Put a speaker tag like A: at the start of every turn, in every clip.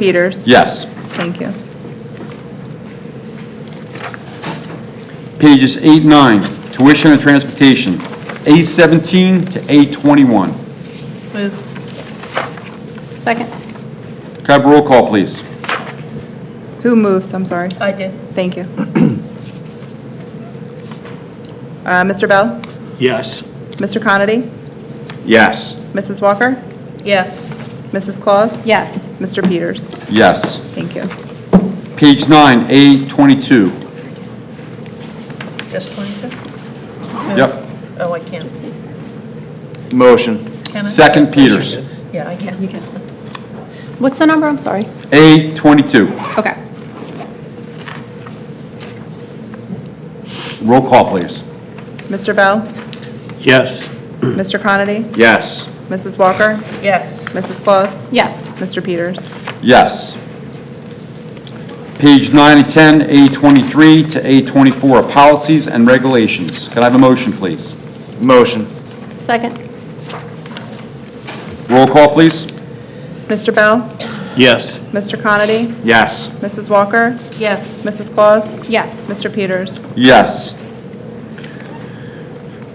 A: Peters?
B: Yes.
A: Thank you.
B: Pages eight, nine, tuition and transportation, A17 to A21.
A: Move. Second.
B: Could I have a roll call, please?
A: Who moved? I'm sorry.
C: I did.
A: Thank you. Uh, Mr. Bell?
D: Yes.
A: Mr. Conity?
B: Yes.
A: Mrs. Walker?
C: Yes.
A: Mrs. Claus?
C: Yes.
A: Mr. Peters?
B: Yes.
A: Thank you.
B: Page nine, A22.
C: Just 22?
B: Yep.
C: Oh, I can't.
B: Motion.
C: Can I?
B: Second, Peters.
C: Yeah, I can. You can.
E: What's the number? I'm sorry.
B: A22.
E: Okay.
B: Roll call, please.
A: Mr. Bell?
D: Yes.
A: Mr. Conity?
B: Yes.
A: Mrs. Walker?
C: Yes.
A: Mrs. Claus?
E: Yes.
A: Mr. Peters?
B: Yes. Page nine and 10, A23 to A24 are policies and regulations. Could I have a motion, please?
F: Motion.
E: Second.
B: Roll call, please.
A: Mr. Bell?
D: Yes.
A: Mr. Conity?
B: Yes.
A: Mrs. Walker?
C: Yes.
A: Mrs. Claus?
E: Yes.
A: Mr. Peters?
B: Yes.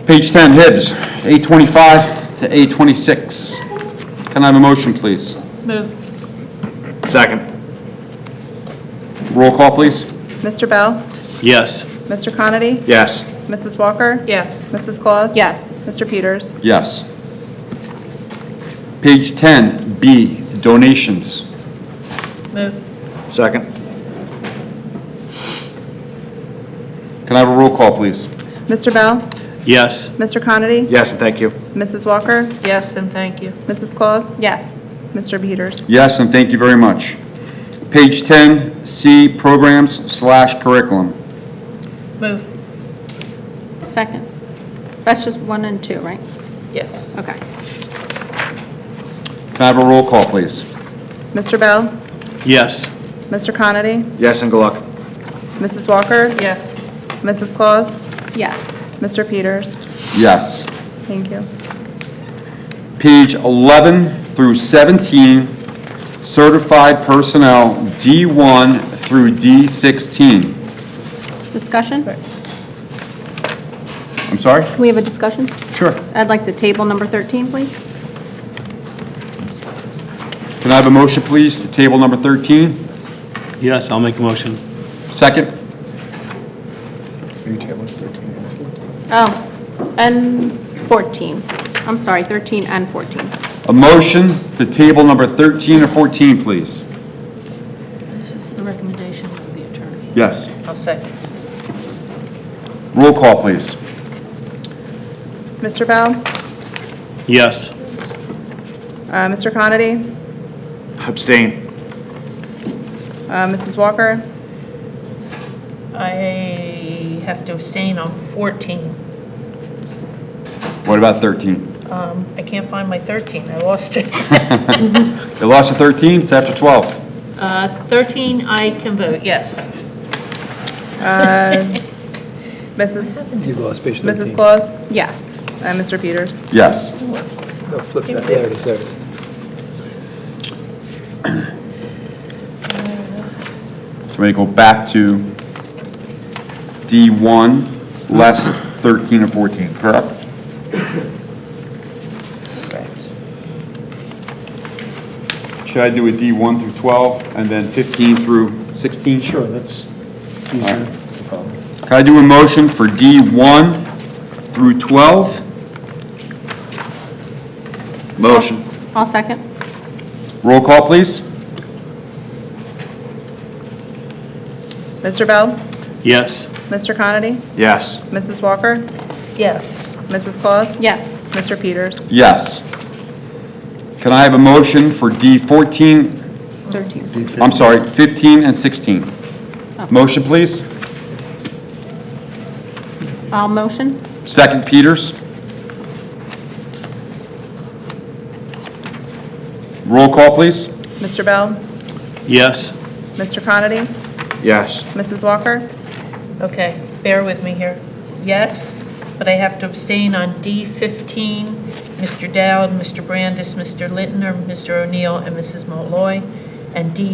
B: Page 10, Hibbs, 825 to 826. Can I have a motion, please?
C: Move.
F: Second.
B: Roll call, please.
A: Mr. Bell?
D: Yes.
A: Mr. Conity?
F: Yes.
A: Mrs. Walker?
C: Yes.
A: Mrs. Claus?
E: Yes.
A: Mr. Peters?
B: Yes. Page 10, B, donations.
C: Move.
F: Second.
B: Can I have a roll call, please?
A: Mr. Bell?
D: Yes.
A: Mr. Conity?
F: Yes, and thank you.
A: Mrs. Walker?
C: Yes, and thank you.
A: Mrs. Claus?
E: Yes.
A: Mr. Peters?
B: Yes, and thank you very much. Page 10, C, programs slash curriculum.
C: Move.
E: Second. That's just one and two, right?
C: Yes.
E: Okay.
B: Can I have a roll call, please?
A: Mr. Bell?
D: Yes.
A: Mr. Conity?
F: Yes, and good luck.
A: Mrs. Walker?
C: Yes.
A: Mrs. Claus?
E: Yes.
A: Mr. Peters?
B: Yes.
A: Thank you.
B: page 11 through 17, certified personnel D1 through D16.
E: Discussion? Can
B: I'm sorry?
E: we have a discussion?
B: Sure.
E: I'd like to table number 13, please.
B: Can I have a motion, please, to table number 13?
D: Yes, I'll make a motion.
B: Second?
E: Oh, and 14. I'm sorry, 13 and 14.
B: A motion to table number 13 or 14, please.
C: This is the recommendation of the attorney.
B: Yes.
C: I'll second.
B: Roll call, please.
A: Mr. Bell?
D: Yes.
A: Uh, Mr. Conity?
F: Abstain.
A: Uh, Mrs. Walker?
C: I have to abstain on 14.
B: What about 13?
C: Um, I can't find my 13. I lost it.
B: They lost to 13, it's after 12.
C: Uh, 13, I can vote yes.
A: Uh, Mrs. Mrs. Claus?
E: Yes.
A: Uh, Mr. Peters?
B: Yes.
G: No, flip that, there it is, there it is.
B: So we go back to D1, less 13 or 14, correct? Should I do a D1 through 12 and then 15 through 16? Sure.
G: that's
B: easier.
G: No problem.
B: Can I do a motion for D1 through 12?
F: Motion.
E: I'll second.
B: Roll call, please.
A: Mr. Bell?
D: Yes.
A: Mr. Conity?
F: Yes.
A: Mrs. Walker?
C: Yes.
A: Mrs. Claus?
E: Yes.
A: Mr. Peters?
B: Yes. Can I have a motion for D14,
E: 13.
B: I'm sorry, 15 and 16? Motion, please.
E: I'll motion.
B: Second, Peters. Roll call, please.
A: Mr. Bell?
D: Yes.
A: Mr. Conity?
F: Yes.
A: Mrs. Walker?
C: Okay, bear with me here. Yes, but I have to abstain on D15, Mr. Dowd, Mr. Brandis, Mr. Lintner, Mr. O'Neill, and Mrs. Malloy, and D